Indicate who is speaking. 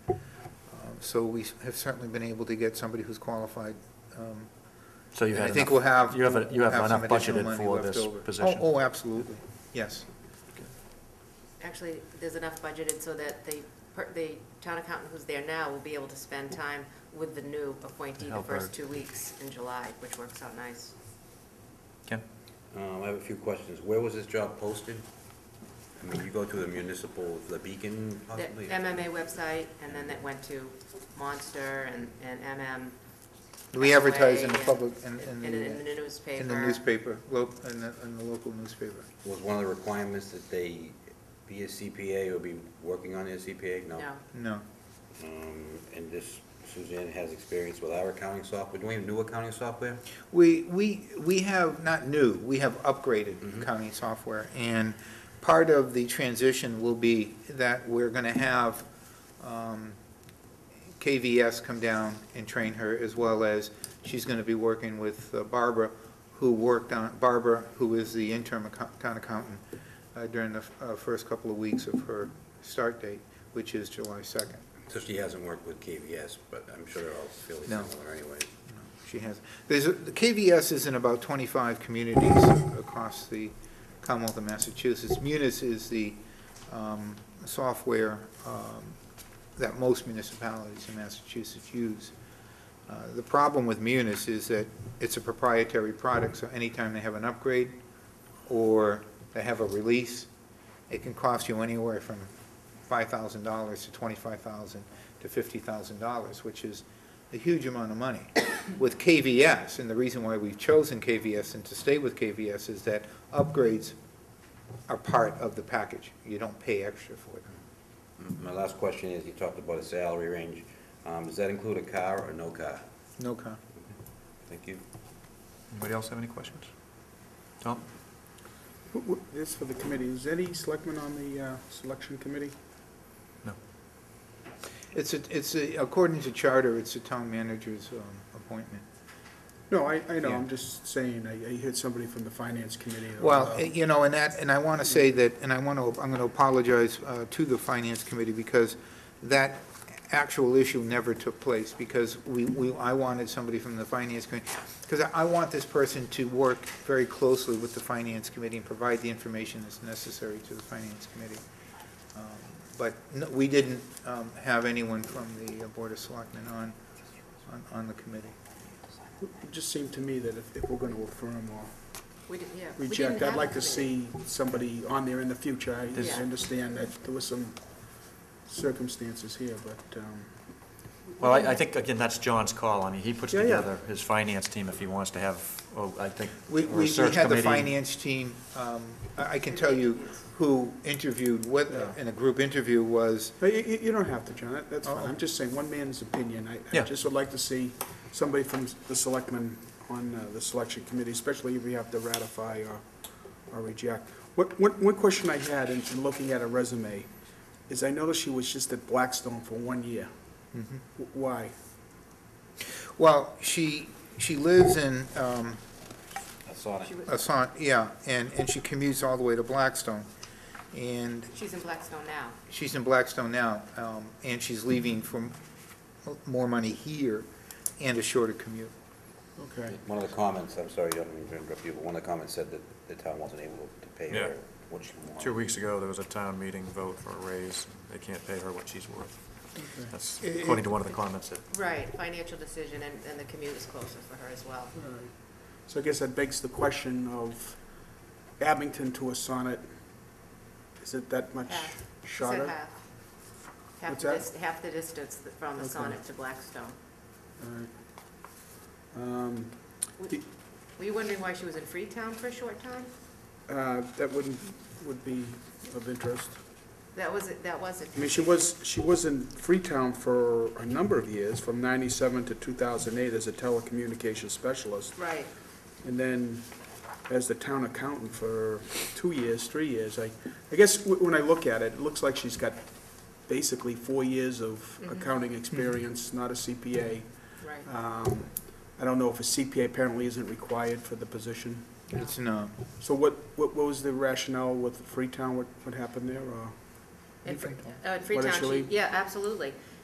Speaker 1: Um, So we have certainly been able to get somebody who's qualified. um,
Speaker 2: So you
Speaker 1: and
Speaker 2: had
Speaker 1: I think
Speaker 2: enough-
Speaker 1: we'll have.
Speaker 2: You have, a- you
Speaker 1: we'll
Speaker 2: have
Speaker 1: some
Speaker 2: enough
Speaker 1: additional
Speaker 2: budgeted
Speaker 1: money
Speaker 2: for
Speaker 1: left
Speaker 2: this
Speaker 1: over. Oh,
Speaker 2: position?
Speaker 1: Oh, absolutely, yes.
Speaker 3: Actually, there's enough budgeted so that the, per- the town accountant who's there now will be able to spend time with the new appointee the
Speaker 2: Help
Speaker 3: first
Speaker 2: her.
Speaker 3: two weeks in July, which works out nice.
Speaker 2: Ken?
Speaker 4: Um, I have a few questions. Where was this job posted? I mean, you go to the municipal, the Beacon
Speaker 3: The
Speaker 4: possibly?
Speaker 3: MMA website, and then that went to Monster and, and MM.
Speaker 1: We advertise in the
Speaker 3: Way,
Speaker 1: public, in, in
Speaker 3: and in
Speaker 1: the,
Speaker 3: the
Speaker 1: uh,
Speaker 3: newspaper.
Speaker 1: in the newspaper, lo- in the, in the local newspaper.
Speaker 4: Was one of the requirements that they be a CPA or be working on their CPA? No.
Speaker 3: No,
Speaker 1: No,
Speaker 4: Um, and this Suzanne has experience with our accounting software. Do we have new accounting software?
Speaker 1: we, we, we have, not new, we have upgraded
Speaker 4: Mhm.
Speaker 1: accounting software. And part of the transition will be that we're gonna have, um, KVS come down and train her, as well as she's gonna be working with uh, Barbara, who worked on, Barbara, who is the interim account- town accountant uh, during the f- uh, first couple of weeks of her start date, which is July second.
Speaker 4: So she hasn't worked with KVS, but I'm sure they're all fairly
Speaker 1: No.
Speaker 4: similar anyway.
Speaker 1: She has, there's, a- the KVS is in about 25 communities across the Commonwealth of Massachusetts. Munis is the um, software um, that most municipalities in Massachusetts use. Uh, The problem with Munis is that it's a proprietary product, so anytime they have an upgrade or they have a release, it can cost you anywhere from $5,000 to $25,000 to $50,000, which is a huge amount of money. With KVS, and the reason why we've chosen KVS and to stay with KVS is that upgrades are part of the package. You don't pay extra for them.
Speaker 4: My last question is, you talked about a salary range. Um, does that include a car or no car?
Speaker 1: No con.
Speaker 4: Thank you.
Speaker 2: Anybody else have any questions? Tom?
Speaker 5: Who- who- This for the committee, is any selectman on the uh, selection committee?
Speaker 2: No.
Speaker 1: It's, a- it's, a- according to charter, it's a town manager's um, appointment.
Speaker 5: No, I, I know,
Speaker 1: Yeah.
Speaker 5: I'm just saying, I I heard somebody from the finance committee. that was,
Speaker 1: Well,
Speaker 5: uh,
Speaker 1: eh, you know, and that, and I want to say that, and I want to, I'm going to apologize uh, to the Finance Committee because that actual issue never took place because we, we, I wanted somebody from the Finance Committee. Because I I want this person to work very closely with the Finance Committee and provide the information that's necessary to the Finance Committee. Um, But no- we didn't um, have anyone from the Board of Selectmen on, on, on the committee.
Speaker 5: It just seemed to me that if, if we're going to affirm or
Speaker 3: we did, yeah. we didn't
Speaker 5: reject, I'd
Speaker 3: have
Speaker 5: like
Speaker 3: a
Speaker 5: to
Speaker 3: committee.
Speaker 5: see somebody on there in the future. I
Speaker 3: This-
Speaker 5: I understand that there were some circumstances here, but, um,
Speaker 2: Well, I, I think, again, that's John's call. I mean, he puts
Speaker 5: Yeah, yeah.
Speaker 2: together his finance team if he wants to have, oh, I think,
Speaker 1: We,
Speaker 2: or a
Speaker 1: we we
Speaker 2: search
Speaker 1: had the
Speaker 2: committee.
Speaker 1: finance team, um, I I can tell you who interviewed, what, in a group interview was,
Speaker 5: but you, you- you don't have to, John, that- that's
Speaker 1: Oh.
Speaker 5: fine. I'm just saying, one man's opinion. I, I
Speaker 2: Yeah.
Speaker 5: just would like to see somebody from the selectmen on uh, the selection committee, especially if we have to ratify or, or reject. What, one, one question I had in, in looking at a resume is I noticed she was just at Blackstone for one year. W- Why?
Speaker 1: well, she, she lives in um,
Speaker 4: I saw it.
Speaker 1: Assant, yeah, and, and she commutes all the way to Blackstone. And
Speaker 3: She's in Blackstone now.
Speaker 1: she's in Blackstone now, um, and she's leaving for m- more money here and a shorter commute.
Speaker 5: Okay.
Speaker 4: One of the comments, I'm sorry, I don't mean to interrupt you, but one of the comments said that the town wasn't able to pay
Speaker 2: Yeah.
Speaker 4: her what she wanted.
Speaker 2: Two weeks ago, there was a town meeting vote for a raise. They can't pay her what she's worth. That's
Speaker 1: It- it-
Speaker 2: according to one of the comments that,
Speaker 3: Right, financial decision, and, and the commute is closer for her as well.
Speaker 5: All right. So I guess that begs the question of Abington to a sonnet. Is it that much
Speaker 3: Half. She said
Speaker 5: shorter?
Speaker 3: half. Half
Speaker 5: What's
Speaker 3: the
Speaker 5: that?
Speaker 3: dis- Half the distance th- from the
Speaker 5: Okay.
Speaker 3: Sonnet to Blackstone.
Speaker 5: All right. Um, Do-
Speaker 3: Were you wondering why she was in Freetown for a short time?
Speaker 5: uh, That wouldn't, would be of interest.
Speaker 3: That was, that was it.
Speaker 5: I mean, she was, she was in Freetown for a number of years, from 97 to 2008 as a telecommunications specialist,
Speaker 3: Right,
Speaker 5: and then as the town accountant for two years, three years. I, I guess wh- when I look at it, it looks like she's got basically four years of accounting experience, not a CPA.
Speaker 3: right.
Speaker 5: Um, I don't know if a CPA apparently isn't required for the position.
Speaker 1: It's, um, no,
Speaker 5: So what, what what was the rationale with Freetown, what, what happened there, or?
Speaker 3: In
Speaker 1: Freetown.
Speaker 3: Fre- uh, in Freetown, she,
Speaker 5: Chile?
Speaker 3: yeah, absolutely.